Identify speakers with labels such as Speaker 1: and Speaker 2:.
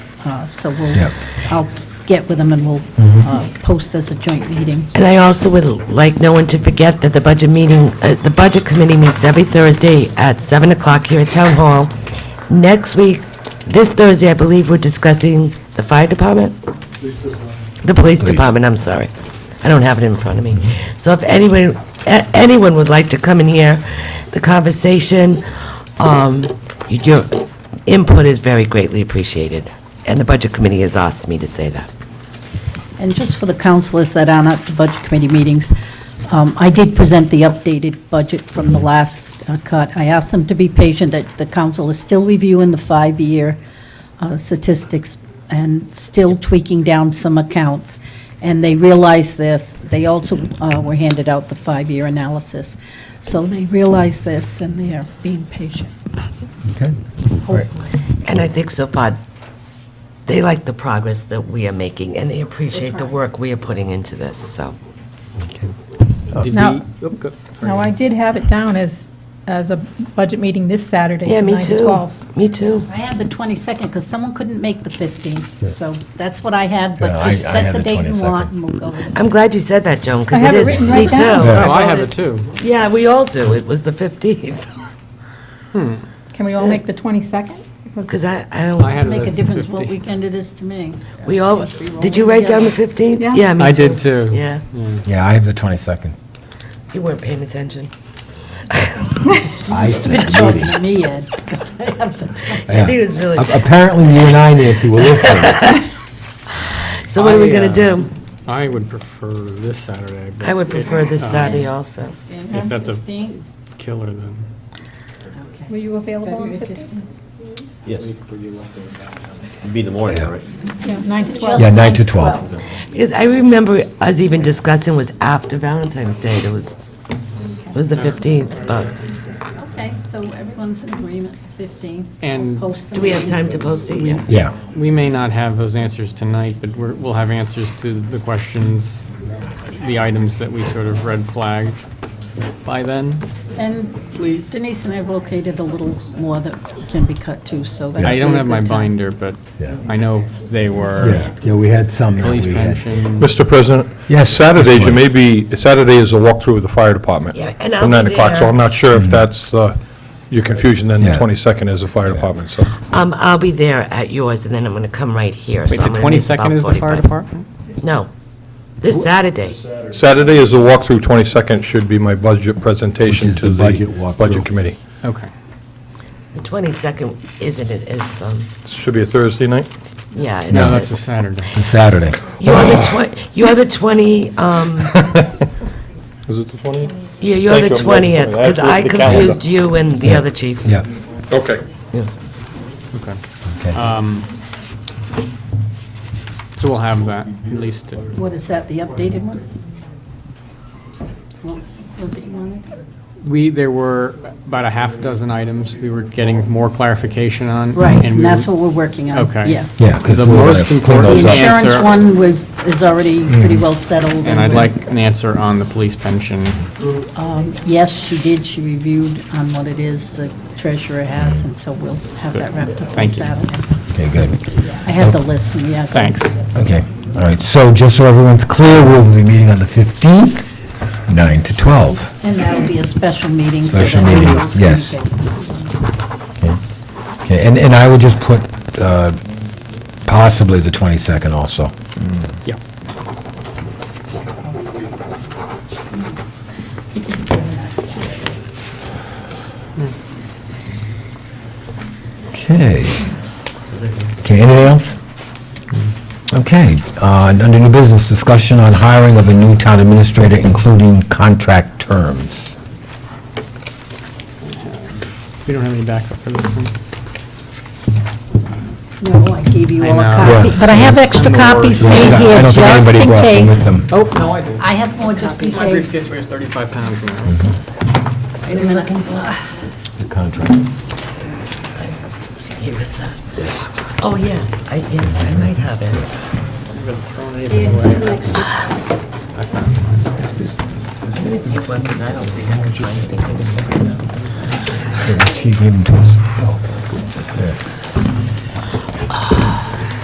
Speaker 1: Uh, So we'll,
Speaker 2: Yep.
Speaker 1: I'll get with them and we'll uh, post as a joint meeting.
Speaker 3: And I also would like no one to forget that the budget meeting, uh, the Budget Committee meets every Thursday at 7 o'clock here at Town Hall. Next week, this Thursday, I believe, we're discussing the fire department? The police department, I'm sorry. I don't have it in front of me. So if anyone, a- anyone would like to come and hear the conversation, um, your input is very greatly appreciated, and the Budget Committee has asked me to say that.
Speaker 1: And just for the councilors that aren't at the budget committee meetings, um, I did present the updated budget from the last uh, cut. I asked them to be patient, that the council is still reviewing the five-year uh, statistics and still tweaking down some accounts. And they realize this. They also uh, were handed out the five-year analysis. So they realize this, and they are being patient,
Speaker 2: Okay.
Speaker 1: hopefully.
Speaker 3: And I think so far, they like the progress that we are making, and they appreciate the work we are putting into this, so.
Speaker 4: Did
Speaker 5: Now-
Speaker 4: we- oh, go- sorry.
Speaker 5: No, I did have it down as, as a budget meeting this Saturday
Speaker 3: Yeah,
Speaker 5: from
Speaker 3: me
Speaker 5: 9 to
Speaker 3: too.
Speaker 5: 12.
Speaker 3: Me too.
Speaker 1: I had the 22nd, because someone couldn't make the 15th, so that's what I had,
Speaker 2: Yeah,
Speaker 1: but
Speaker 2: I-
Speaker 1: just
Speaker 2: I
Speaker 1: set
Speaker 2: had
Speaker 1: the
Speaker 2: the
Speaker 1: date you
Speaker 2: 22nd.
Speaker 1: want, and we'll go with it.
Speaker 3: I'm glad you said that, Joan,
Speaker 5: I
Speaker 3: because
Speaker 5: have
Speaker 3: it
Speaker 5: it
Speaker 3: is.
Speaker 5: written
Speaker 3: me
Speaker 5: right
Speaker 3: too.
Speaker 5: down.
Speaker 2: Yeah.
Speaker 4: Oh, I have it too.
Speaker 3: Yeah, we all do. It was the 15th,
Speaker 5: Can we all make the 22nd?
Speaker 3: because I, I
Speaker 4: I
Speaker 3: don't,
Speaker 4: had it
Speaker 1: Make a
Speaker 4: as
Speaker 1: difference what
Speaker 4: 15.
Speaker 1: weekend it is to me.
Speaker 3: we all,
Speaker 1: Seems to be
Speaker 3: did you
Speaker 1: rolling
Speaker 3: write down the
Speaker 1: together.
Speaker 3: 15th?
Speaker 5: Yeah.
Speaker 3: me
Speaker 4: I did too.
Speaker 3: Yeah,
Speaker 2: Yeah, I have the 22nd.
Speaker 3: you weren't paying attention.
Speaker 2: I
Speaker 1: Been talking to me, Ed, 'cause I have the-
Speaker 3: I think it was really,
Speaker 2: Apparently, you and I, Nancy, were listening.
Speaker 3: so what are we
Speaker 4: I,
Speaker 3: going
Speaker 4: uh,
Speaker 3: to do?
Speaker 4: I would prefer this Saturday. but
Speaker 3: I would prefer this Saturday also.
Speaker 4: If that's a-
Speaker 1: 15th?
Speaker 4: Killer then.
Speaker 5: Were you available on the 15th?
Speaker 6: Yes. Be the morning, right?
Speaker 5: Yeah, 9 to 12.
Speaker 2: Yeah, 9 to 12.
Speaker 3: Because I remember us even discussing was after Valentine's Day, it was, it was the 15th, but.
Speaker 1: Okay, so everyone's in agreement, 15th.
Speaker 4: And-
Speaker 1: We'll post the
Speaker 3: Do we have
Speaker 1: meeting.
Speaker 3: time to post it? Yeah.
Speaker 2: Yeah.
Speaker 4: We may not have those answers tonight, but we're, we'll have answers to the questions, the items that we sort of red flagged by then.
Speaker 1: And Denise and I have located a little more that can be cut too, so that's.
Speaker 4: I don't have my
Speaker 1: binder.
Speaker 4: binder, but
Speaker 2: Yeah.
Speaker 4: I know they were
Speaker 2: Yeah, yeah, we had some that
Speaker 4: police
Speaker 2: we had.
Speaker 4: pension.
Speaker 7: Mr. President?
Speaker 2: Yes,
Speaker 7: Saturdays,
Speaker 2: Mr.
Speaker 7: you may be, Saturday is a walkthrough of the fire department.
Speaker 3: Yeah, and I'll
Speaker 7: From
Speaker 3: be
Speaker 7: 9 o'clock, so
Speaker 3: there.
Speaker 7: I'm not sure if that's uh, your confusion, then the
Speaker 2: Mm-hmm. Yeah.
Speaker 7: 22nd is the fire department, so.
Speaker 3: Um, I'll be there at yours, and then I'm gonna come right here, so
Speaker 4: Wait, the
Speaker 3: I'm gonna miss about
Speaker 4: 22nd is the fire
Speaker 3: 45.
Speaker 4: department?
Speaker 3: No, this Saturday.
Speaker 7: Saturday is the walkthrough, 22nd should be my budget presentation
Speaker 2: Which is
Speaker 7: to
Speaker 2: the
Speaker 7: the
Speaker 2: budget walkthrough.
Speaker 7: Budget Committee.
Speaker 4: Okay.
Speaker 3: The 22nd, isn't it, is, um,
Speaker 7: Should be a Thursday night?
Speaker 3: yeah. it
Speaker 4: No,
Speaker 3: is.
Speaker 4: that's a Saturday.
Speaker 2: It's Saturday.
Speaker 3: You're the 20, you're the 20, um,
Speaker 7: Is it the 20th?
Speaker 3: yeah, you're the
Speaker 7: Thank you.
Speaker 3: 20th, because
Speaker 6: That's
Speaker 3: I
Speaker 6: the calendar.
Speaker 3: confused you and the other chief.
Speaker 2: Yeah.
Speaker 7: Okay.
Speaker 4: Okay.
Speaker 2: Okay.
Speaker 4: So we'll have that, at least. uh,
Speaker 1: What is that, the updated one? What was it you wanted?
Speaker 4: We, there were about a half dozen items we were getting more clarification on.
Speaker 1: Right,
Speaker 4: we
Speaker 1: and that's
Speaker 4: were-
Speaker 1: what we're working on.
Speaker 4: Okay.
Speaker 1: Yes.
Speaker 2: Yeah. 'cause
Speaker 4: The
Speaker 2: we wanna
Speaker 4: most
Speaker 2: clean
Speaker 4: important
Speaker 2: those
Speaker 1: The
Speaker 2: up.
Speaker 4: issue-
Speaker 1: insurance
Speaker 4: Answer.
Speaker 1: one was, is already pretty well settled.
Speaker 4: And I'd like an answer on the police pension.
Speaker 1: um, Yes, she did, she reviewed on what it is the treasurer has, and so we'll have that wrapped up on
Speaker 4: Thank you.
Speaker 1: Saturday.
Speaker 2: Okay, good.
Speaker 1: I have the list, and yeah.
Speaker 4: Thanks.
Speaker 2: Okay, all right, so just so everyone's clear, we'll be meeting on the 15th, 9 to 12.
Speaker 1: And that'll be a special meeting. so
Speaker 2: Special
Speaker 1: that
Speaker 2: meeting,
Speaker 1: everyone's
Speaker 2: yes.
Speaker 1: gonna get-
Speaker 2: Okay, and, and I would just put uh, possibly the 22nd also.
Speaker 4: Yeah.
Speaker 2: Okay. Okay, anything else? Okay, uh, under new business, discussion on hiring of a new town administrator, including contract terms.
Speaker 4: We don't have any backup for this one.
Speaker 1: No, I gave you all a
Speaker 4: I know.
Speaker 1: copy,
Speaker 2: Yeah.
Speaker 1: but I have extra copies made
Speaker 2: I
Speaker 1: here
Speaker 2: don't think
Speaker 1: just
Speaker 2: anybody
Speaker 1: in
Speaker 2: brought them with
Speaker 1: case.
Speaker 2: them.
Speaker 4: Oh, no, I do.
Speaker 1: I have more just in
Speaker 4: My briefcase
Speaker 1: case.
Speaker 4: weighs 35 pounds now.
Speaker 1: Wait a minute.
Speaker 2: The contract.
Speaker 3: Here is that. Oh, yes, I, yes, I might have it. I'm gonna take one, because I don't think I can find anything.
Speaker 2: She gave them to us.